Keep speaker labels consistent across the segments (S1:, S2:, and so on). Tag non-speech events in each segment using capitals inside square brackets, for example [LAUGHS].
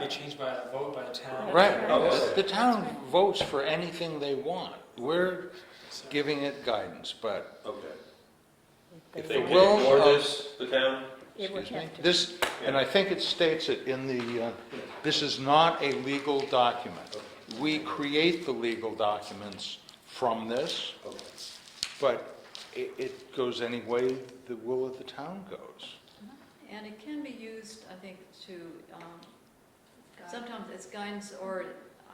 S1: be changed by a vote by the town.
S2: Right,
S3: Okay.
S2: the town votes for anything they want. We're giving it guidance, but
S3: Okay.
S2: if
S3: They
S2: the
S3: can
S2: will
S3: ignore
S2: of,
S3: this, the town?
S4: It would
S2: excuse me,
S4: have to.
S2: this, and I think it states it in the, uh, this is not a legal document. We create the legal documents from this,
S3: Okay.
S2: but it, it goes any way the will of the town goes.
S5: And it can be used, I think, to, um, sometimes it's guidance, or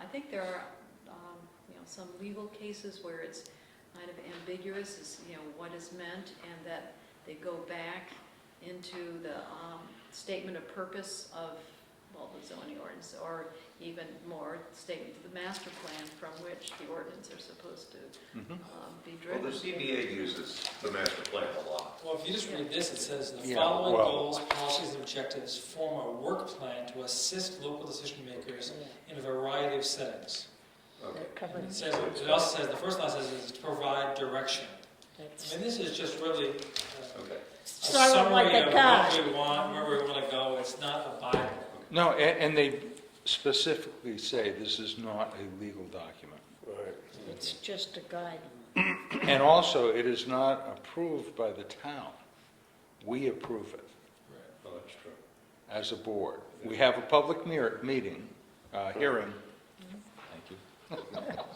S5: I think there are, um, you know, some legal cases where it's kind of ambiguous, as, you know, what is meant, and that they go back into the um, statement of purpose of, well, the zoning ordinance, or even more, statement of the master plan from which the ordinance are supposed to
S2: Mhm.
S5: um, be
S3: Well,
S5: driven.
S3: the CBA uses the master plan a lot.
S1: Well, if you just read this, it says, "The
S2: Yeah,
S1: following
S2: well-
S1: goals, policies, and objectives form a work plan to assist local decision makers in a variety of settings."
S3: Okay.
S4: That covers-
S1: It says, it also says, the first line says, is to provide direction. I
S4: that's-
S1: mean, this is just really uh,
S3: Okay.
S1: a
S4: Sort of like
S1: summary
S4: a
S1: of
S4: guide.
S1: what we want, where we want to go, it's not a Bible.
S2: No, a- and they specifically say this is not a legal document.
S4: It's just a guide.
S2: And also, it is not approved by the town. We approve it
S3: Oh, that's true.
S2: as a board. We have a public mir- meeting, uh, hearing. Thank you.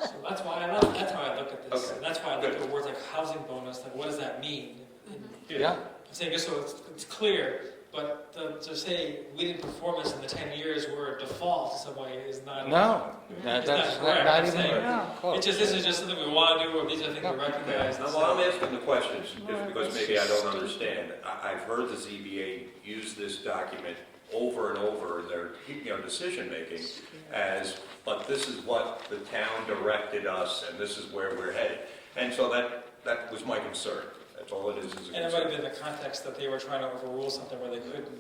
S1: So that's why I look, that's how I look at this,
S3: Okay.
S1: and that's why I look at words like housing bonus, like what does that mean? And
S2: Yeah,
S1: I'm saying just so it's, it's clear, but the- to say we didn't perform this in the ten years, we're a default in some way is not.
S2: no, that-
S1: It's not
S2: that's not
S1: correct,
S2: not
S1: I'm
S2: even
S1: saying.
S2: no,
S1: It's
S2: close.
S1: just, this is just something we want to do, or these are things
S2: No.
S1: we recognize.
S3: Now, while I'm asking the questions, just because maybe I don't understand, I, I've heard the ZBA use this document over and over in their, you know, decision-making as, but this is what the town directed us, and this is where we're headed. And so that, that was my concern. That's all it is, is a
S1: And it might have
S3: concern.
S1: been the context that they were trying to overrule something where they couldn't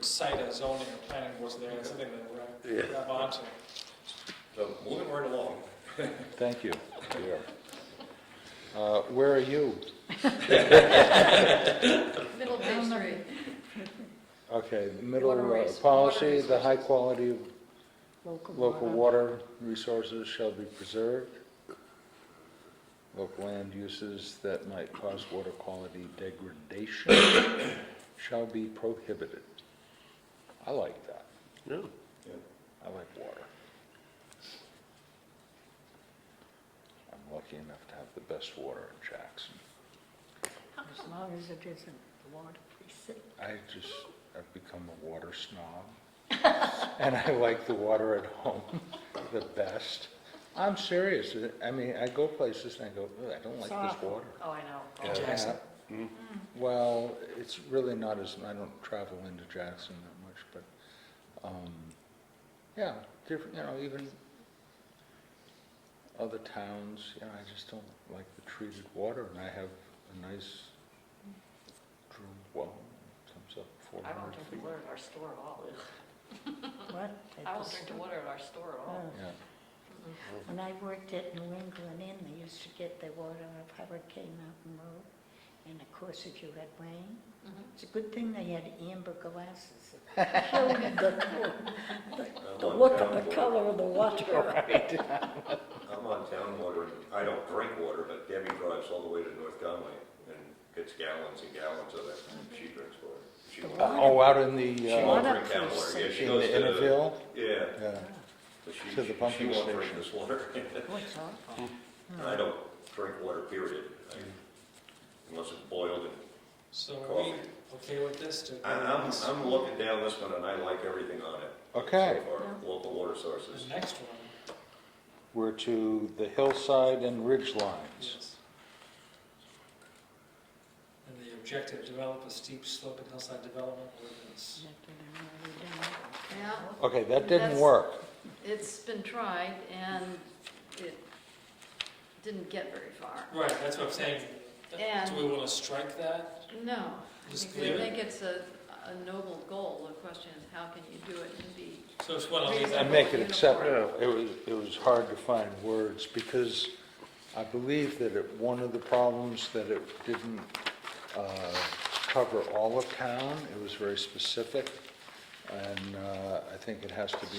S1: cite a zoning or planning board, so they had something that they were grab onto.
S3: So moving right along.
S2: Thank you. Uh, Where are you?
S5: Middle of page three.
S2: Okay, the middle
S5: Water
S2: uh,
S5: res-
S2: policy,
S5: water
S2: the high quality of Local
S4: water.
S2: water resources shall be preserved. Local land uses that might cause water quality degradation shall be prohibited. I like that.
S3: Yeah.
S2: I like water. I'm lucky enough to have the best water in Jackson.
S4: As long as it isn't water, please.
S2: I just, I've become a water snob, [LAUGHS] and I like the water at home [LAUGHS] the best. I'm serious, I mean, I go places and I go, "Ugh, I don't like this water.
S4: Oh, I know.
S1: In Jackson?
S2: Yeah. Mm-hmm. Well, it's really not as, I don't travel into Jackson that much, but, um, yeah, different, you know, even other towns, you know, I just don't like the treated water, and I have a nice drew well, comes up four
S6: I don't
S2: hundred
S6: drink
S2: feet.
S6: the water at our store at all.
S4: What?
S6: I don't drink the water at our store at all.
S2: Yeah.
S4: Oh. When I worked at New England Inn, they used to get their water out of Hurricane Mountain Road. And of course, if you had rain, it's a good thing they had amber glasses. It showed you the col- The
S3: I'm on
S4: look
S3: town
S4: of the
S3: board.
S4: color of the
S2: [LAUGHS]
S4: water.
S3: I'm on town water, I don't drink water, but Debbie drives all the way to North Conway and gets gallons and gallons of it, she drinks water. She
S4: The
S3: won't-
S2: Uh, Oh, out in
S3: She
S2: the, uh,
S3: won't
S4: Water
S3: drink town water, yeah,
S4: precinct.
S3: she
S2: in
S3: goes
S2: the
S3: to,
S2: Innerville,
S3: yeah,
S2: yeah,
S3: but she,
S2: To the
S3: she
S2: pumping
S3: won't drink
S2: station.
S3: this water.
S4: Oh, it's awful.
S3: I don't drink water, period, I- unless it's boiled. and-
S1: So are we okay with this? to-
S3: I- I'm, I'm looking down this one and I like everything on it.
S2: okay.
S3: So far, local water
S1: The
S3: sources.
S1: next one,
S2: We're to the hillside and ridge lines.
S1: yes. And the objective, develop a steep slope and hillside development ordinance.
S5: Yeah,
S2: Okay, that didn't
S5: That's-
S2: work.
S5: it's been tried and it didn't get very far.
S1: Right, that's what I'm saying.
S5: And-
S1: Do we want to strike that?
S5: No, I
S1: Just
S5: think- I
S1: leave it?
S5: think it's a, a noble goal. The question is, how can you do it and be,
S1: So it's one of these.
S2: And make it acceptable. It was, it was hard to find words because I believe that it, one of the problems that it didn't uh, cover all of town, it was very specific. And uh, I think it has to be